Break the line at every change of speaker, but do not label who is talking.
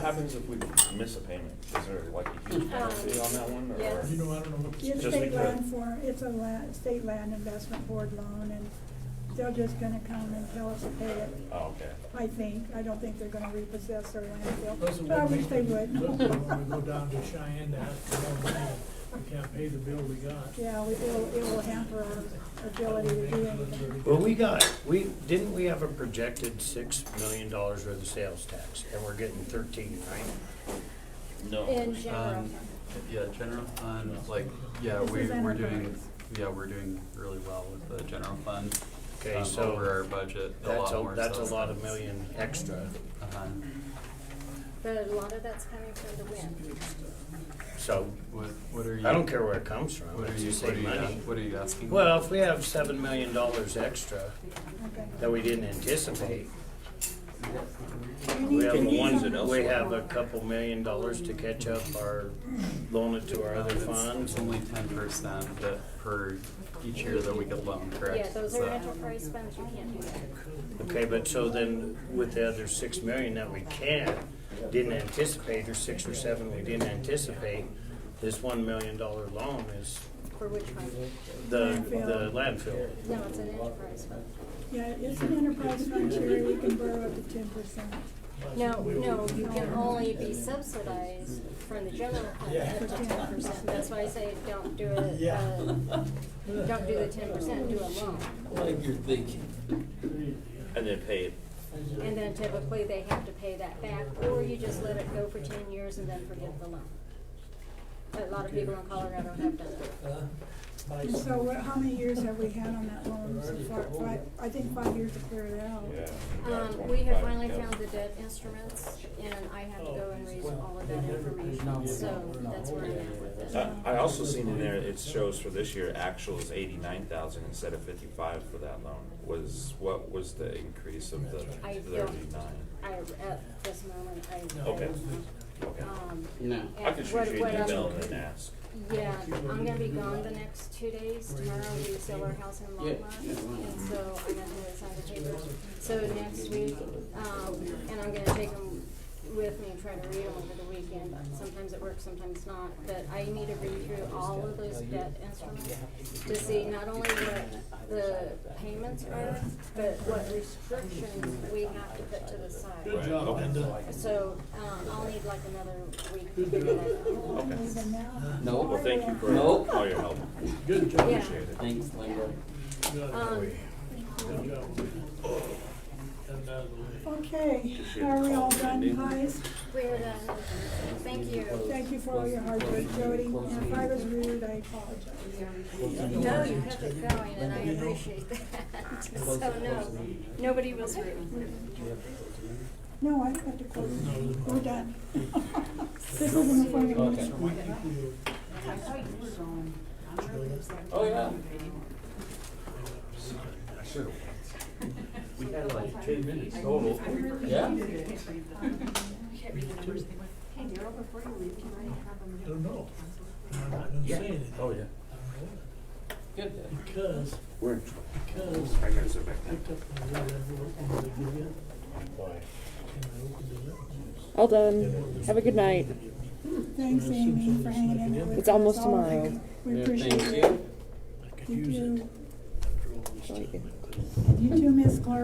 happens if we miss a payment? Is there like a huge penalty on that one, or?
Um, Yes.
You know, I don't know what.
It's
Just
state
because-
land for, it's a land, state land investment board loan, and they're just gonna come and tell us to pay it,
Oh, okay.
I think. I don't think they're gonna repossess their
Those are
landfill,
what
but I wish
make
they
the-
would.
those are when we go down to Cheyenne to ask for more money, we can't pay the bill we got.
Yeah, we- it'll, it will hamper our ability to do anything.
Well, we got, we, didn't we have a projected six million dollars worth of sales tax, and we're getting thirteen, right?
No.
In general.
Um, Yeah, general fund, like, yeah,
This
we,
is
we're doing,
enterprise.
yeah, we're doing really well with the general fund.
Okay,
um,
so
Over our budget, a
That's
lot
a,
more.
that's a
so
lot of
that's-
million extra,
uh-huh.
But a lot of that's coming from the wind.
so
What, what are you?
I don't care where it comes from,
What are
it's
you,
the
what are
same
you,
money.
ask- what are you asking?
Well, if we have seven million dollars extra
Okay.
that we didn't anticipate,
You need
we
to
have,
do
one-
something.
we have a couple million dollars to catch up or loan it to our
Um,
other
it's-
funds.
It's only ten percent that per, each year that we could loan, correct?
Yeah, those
So-
are enterprise funds, you can't do that.
Okay, but so then with the other six million that we can, didn't anticipate, or six or seven we didn't anticipate, this one million dollar loan is
For which one?
the, the landfill.
No, it's an enterprise fund.
Yeah, it's an enterprise fund, Sherry, we can borrow up to ten percent.
No, no, you can only be subsidized from the general fund
Yeah.
up to ten percent. That's why I say don't do it,
Yeah.
uh, don't do the ten percent, do a loan.
Like you're thinking.
And then pay it.
And then typically they have to pay that back, or you just let it go for ten years and then forgive the loan. A lot of people in Colorado have done that.
huh?
And so what, how many years have we had on that loan so far? Five, I think five years to clear it out.
Yeah.
Um, we have finally found the debt instruments, and I have to go and read all of that information, so that's where I'm at Um, with this.
Uh, I also seen in there, it shows for this year, actual is eighty-nine thousand instead of fifty-five for that loan. Was, what was the increase of the
I don't,
thirty-nine?
I, at this moment, I. I
Okay.
don't
Okay.
know. Um,
No.
I could
and
shoot
what-
you
what
an
I'm-
email and then ask.
Yeah, I'm gonna be gone the next two days. Tomorrow we sell our house in
Yeah,
Longmont,
yeah, why not?
and so I'm gonna do sign the papers. So next week, um, and I'm gonna take them with me and try to read them over the weekend. Sometimes it works, sometimes not, but I need to read through all of those debt instruments to see not only what the payments are, but what restrictions we have to put to the side.
Good job, Linda.
So, um, I'll need like another week to figure that out.
Even now.
Nope.
Well, thank you for
Nope.
all your help.
Good job,
Yeah.
Appreciate it.
Thanks, Linda.
good,
Um,
good job. Got it out of the way.
Okay, are we all done, guys?
we're done. um, Thank you.
Thank you for all your hard work, Jody, and if I was rude, I apologize.
No, you have it going, and I appreciate that. So, no, nobody was rude.
No, I don't have to close, we're done. This isn't a formal motion.
Oh, yeah. We had like two minutes total. Yeah?
Hey, Daryl, before you leave, can I have a
I
minute?
don't know. I'm not gonna say anything.
Oh, yeah.
I don't
Good.
know. Because,
We're in
because
I gotta sit back
I picked up my red envelope and I gave you, and I opened it up.
All done. Have a good night.
Thanks, Amy, for hanging in there with us.
It's almost
as always.
tomorrow.
We
Yeah,
appreciate
Thank
it.
you.
I could
You
use it.
too,
After all this
Like it.
time.
you too, Miss Clark.